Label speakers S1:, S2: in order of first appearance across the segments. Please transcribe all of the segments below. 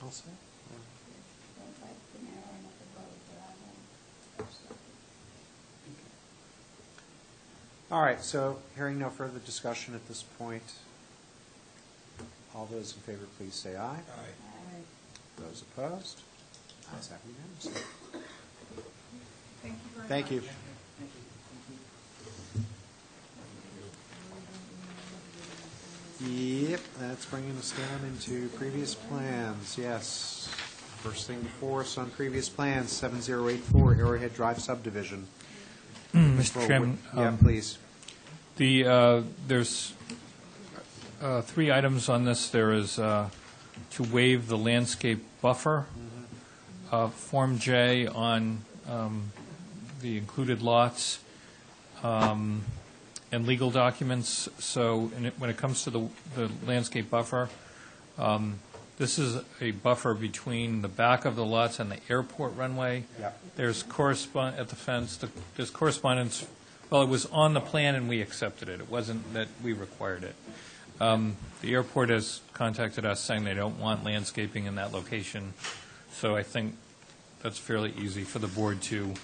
S1: Nelson?
S2: Don't like the narrowing of the road, but I won't stop it.
S1: All right, so hearing no further discussion at this point, all those in favor, please say aye.
S2: I-
S1: Those opposed? Ayes have unanimously.
S3: Thank you very much.
S1: Thank you. Yep, that's bringing us down into previous plans, yes. First thing before us on previous plans, 7084 Arrowhead Drive subdivision.
S4: Mr. Chairman,
S1: Mm, Yeah,
S4: um,
S1: please.
S4: the, uh, there's uh, three items on this. There is uh, to waive the landscape buffer, uh, Form J on um, the included lots, um, and legal documents. So and it- when it comes to the the landscape buffer, um, this is a buffer between the back of the lots and the airport runway.
S1: Yep.
S4: There's correspond, at the fence, the- there's correspondence, well, it was on the plan and we accepted it. It wasn't that we required it. Um, The airport has contacted us saying they don't want landscaping in that location, so I think that's fairly easy for the board to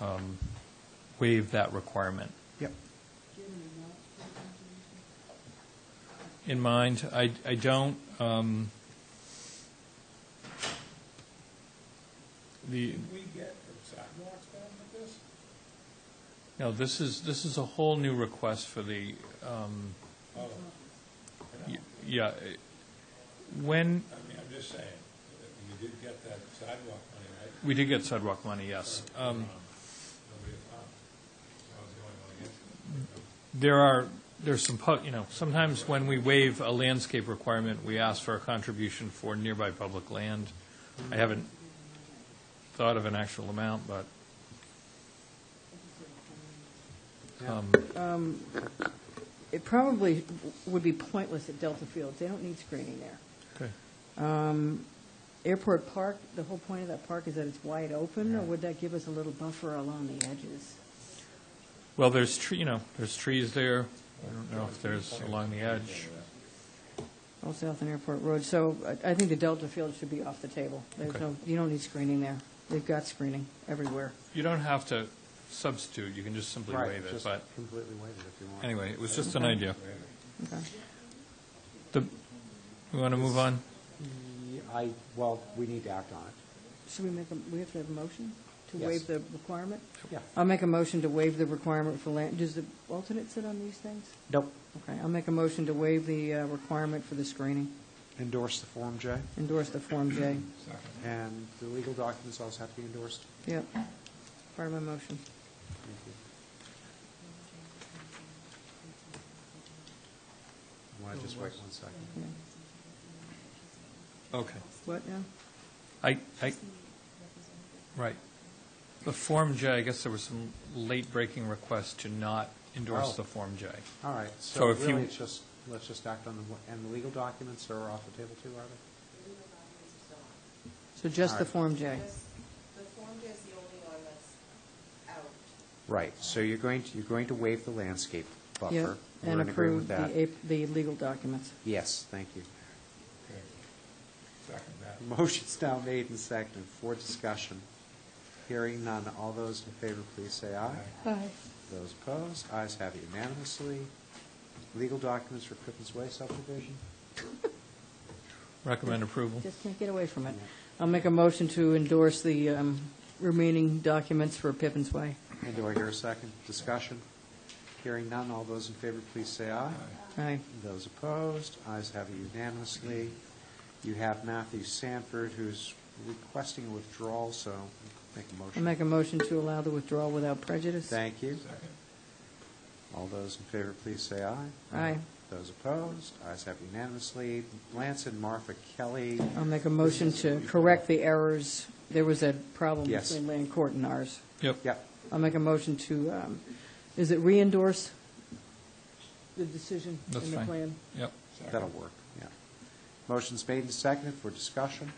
S4: um, waive that requirement.
S1: Yep.
S4: in mind. I, I don't, um, the,
S5: we get sidewalks down with this?
S4: no, this is, this is a whole new request for the, um,
S5: Oh,
S4: y- yeah. eh, When,
S5: I mean, I'm just saying, that you did get that sidewalk money, right?
S4: we did get sidewalk money, yes. Um,
S5: Nobody found it. I was the only one against it.
S4: There are, there's some, pub- you know, sometimes when we waive a landscape requirement, we ask for a contribution for nearby public land. I haven't thought of an actual amount, but. um,
S6: It probably would be pointless at Delta Fields. They don't need screening there.
S4: Okay.
S6: Airport Park, the whole point of that park is that it's wide open, or would that give us a little buffer along the edges?
S4: Well, there's tree, you know, there's trees there. I don't know if there's along the edge.
S6: Old South and Airport Road, so I I think the Delta Fields should be off the table. There's
S4: Okay.
S6: no, you don't need screening there. They've got screening everywhere.
S4: You don't have to substitute, you can just simply
S1: Right,
S4: waive it,
S1: just
S4: but
S1: Completely waive it if you want.
S4: anyway, it was just an idea.
S6: Okay.
S4: The, we want to move on?
S1: Yeah, Mm, I, well, we need to act on it.
S6: Should we make, a we have to have a motion to
S1: Yes.
S6: waive the requirement?
S1: Yeah.
S6: I'll make a motion to waive the requirement for land, does the alternate sit on these things?
S1: Nope.
S6: Okay, I'll make a motion to waive the uh, requirement for the screening.
S1: Endorse the Form J,
S6: Endorse the Form J.
S1: and the legal documents also have to be endorsed.
S6: Yep, part of my motion.
S1: Thank you. Want to just wait one second?
S6: Yeah.
S4: Okay.
S6: What now?
S4: I, I, right. The Form J, I guess there was some late-breaking request to not endorse
S1: Oh.
S4: the Form J.
S1: All right, so
S4: So if you-
S1: really, it's just, let's just act on the, and the legal documents are off the table too, are they?
S6: So just the
S1: Alright.
S6: Form J.
S7: The Form J is the only one that's out.
S1: Right, so you're going to, you're going to waive the landscape
S6: Yeah,
S1: buffer. We're
S6: And
S1: in agreement
S6: approve
S1: with
S6: the,
S1: that.
S6: ap- the legal documents.
S1: Yes, thank you.
S5: Okay. Second that.
S1: Motion's now made and seconded for discussion. Hearing none, all those in favor, please say aye.
S6: Aye.
S1: Those opposed, ayes have it unanimously. Legal documents for Crippens Way subdivision?
S4: Recommend approval.
S6: Just can't get away from it.
S1: Yeah.
S6: I'll make a motion to endorse the um, remaining documents for Pippin's Way.
S1: And do I hear a second? Discussion? Hearing none, all those in favor, please say aye.
S6: Aye.
S1: Those opposed, ayes have it unanimously. You have Matthew Sanford, who's requesting a withdrawal, so make a
S6: I'll
S1: motion.
S6: make a motion to allow the withdrawal without prejudice.
S1: Thank you. All those in favor, please say aye.
S6: Aye.
S1: Those opposed, ayes have unanimously. Lance and Martha Kelly,
S6: I'll make a motion to correct the errors. There was a problem
S1: Yes.
S6: between land court and ours.
S4: Yep.
S1: yep,
S6: I'll make a motion to, um, is it re-endorse the decision
S4: That's
S6: in the
S4: fine.
S6: plan?
S4: Yep.
S1: that'll work, yeah. Motion's made and seconded for discussion.